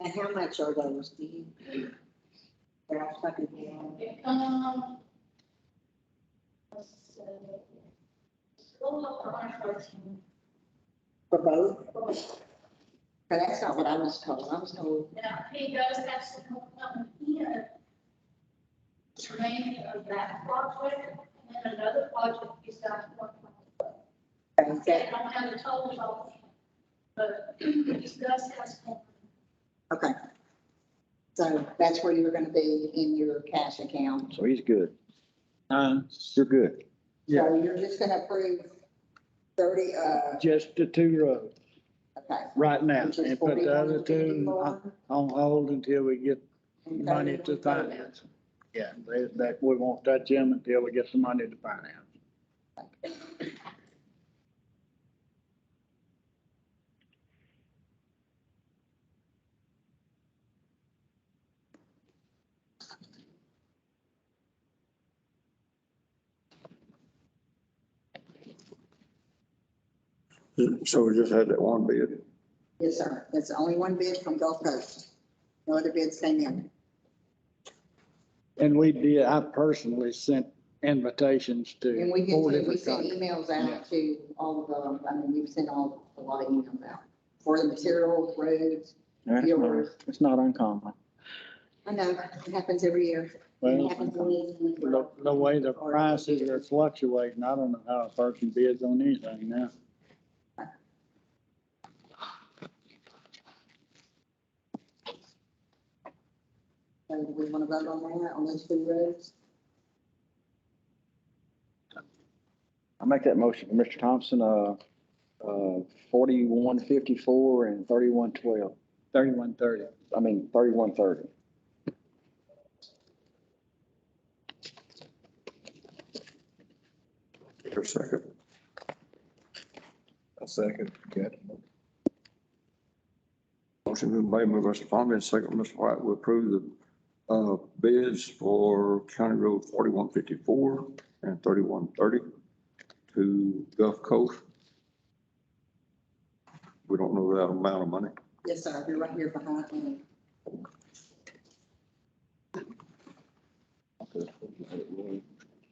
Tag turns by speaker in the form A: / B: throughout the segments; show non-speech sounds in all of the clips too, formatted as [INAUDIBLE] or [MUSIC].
A: And how much are those, do you? think? They're all fucking down.
B: Um. let's see. We'll look for our first one.
A: For both? But that's not what I was told, I was told,
B: Now, he does have some, um, here. Training of that project and then another project he's got working on.
A: okay,
B: They
A: that-
B: don't have the totals on it, but he does have some.
A: okay. So that's where you were gonna be in your cash account.
C: So he's good.
D: Uh,
C: You're good.
A: So you're just gonna approve thirty, uh,
D: just the two roads
A: okay.
D: right now
A: which is
D: and put the other two on
A: 41,054,
D: on hold until we get
A: and
D: money to
A: 31,000.
D: finance. them. Yeah, that, that, we won't touch them until we get some money to finance.
C: So we just had that one bid.
A: Yes, sir, that's the only one bid from Gulf Coast, no other bids came in.
D: And we did, I personally sent invitations
A: And
D: to
A: we
D: four
A: get, we
D: different
A: send
D: companies.
A: emails out to all of the, I mean, we've sent all, a lot of emails out for the materials, roads, viewers.
D: It's not uncommon.
A: I know, it happens every year. It happens
D: Well,
A: when we-
D: the, the way the prices are fluctuating, I don't know how a person bids on anything now.
A: So do we want to vote on that, on those two roads?
C: I make that motion, Mr. Thompson, uh, uh, forty-one fifty-four and thirty-one twelve,
D: Thirty-one thirty.
C: I mean, thirty-one thirty.
E: Your second. A second, okay. Motion been made by Mr. Palmer and second by Mr. White We approve the uh, bids for County Road forty-one fifty-four and thirty-one thirty to Gulf Coast. We don't know that amount of money.
A: Yes, sir, you're right here behind me.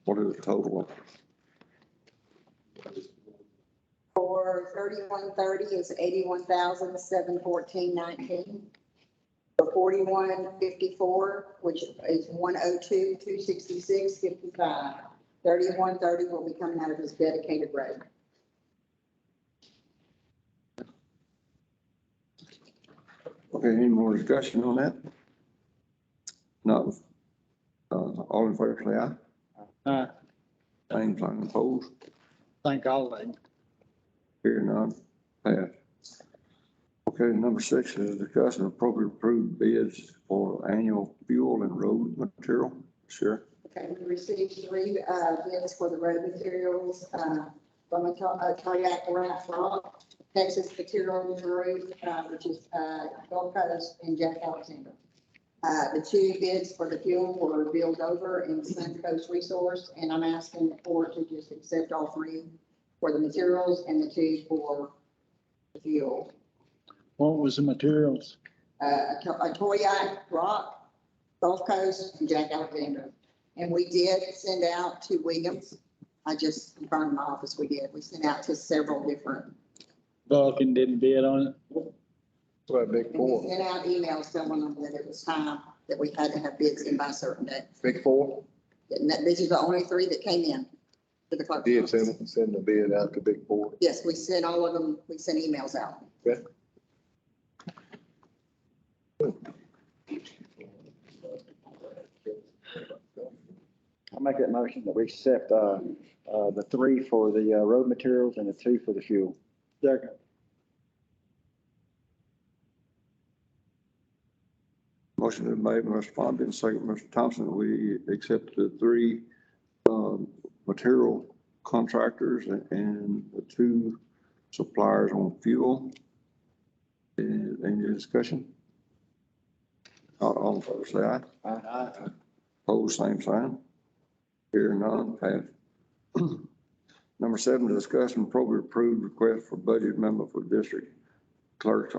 E: What is the total?
A: For thirty-one thirty is eighty-one thousand, seven fourteen nineteen. For forty-one fifty-four, which is one oh two, two sixty-six, fifty-five. Thirty-one thirty will be coming out of his dedicated road.
E: Okay, any more discussion on that? No. Uh, All in favor, say aye.
D: I
E: Same sign opposed.
D: think all of them.
E: Here none, passed. Okay, number six is discuss and appropriate approved bids for annual fuel and road material. Sure.
A: Okay, we received three, uh, bids for the road materials, uh, from uh, a co- a kayak raft rock, Texas Materials Group, uh, which is, uh, Gulf Coast and Jack Alexander. Uh, the two bids for the fuel were Bill Dover and Sun Coast Resource, and I'm asking the board to just accept all three for the materials and the two for the fuel.
D: What was the materials?
A: Uh, a to- a kayak rock, Gulf Coast, and Jack Alexander. And we did send out to Williams. I just confirmed in my office, we did. We sent out to several different.
D: Vulcan didn't bid on it.
E: Right, big
A: And we sent out emails telling them that it was time, that we had to have bids in by a certain date.
F: Big Four?
A: And that- these are the only three that came in to the clerk.
F: Did send, send the bid out to Big Four.
A: Yes, we sent all of them, we sent emails out.
C: I make that motion that we accept, uh, uh, the three for the, uh, road materials and the two for the fuel.
D: Second.
E: Motion been made by Mr. Fonda and second by Mr. Thompson. We accept the three um, material contractors and the two suppliers on fuel. And Any discussion? Not all in favor, say aye. Pose same sign. Here none, pass. [CLEARS THROAT] Number seven, discuss and appropriate approved request for budget amendment for district clerk's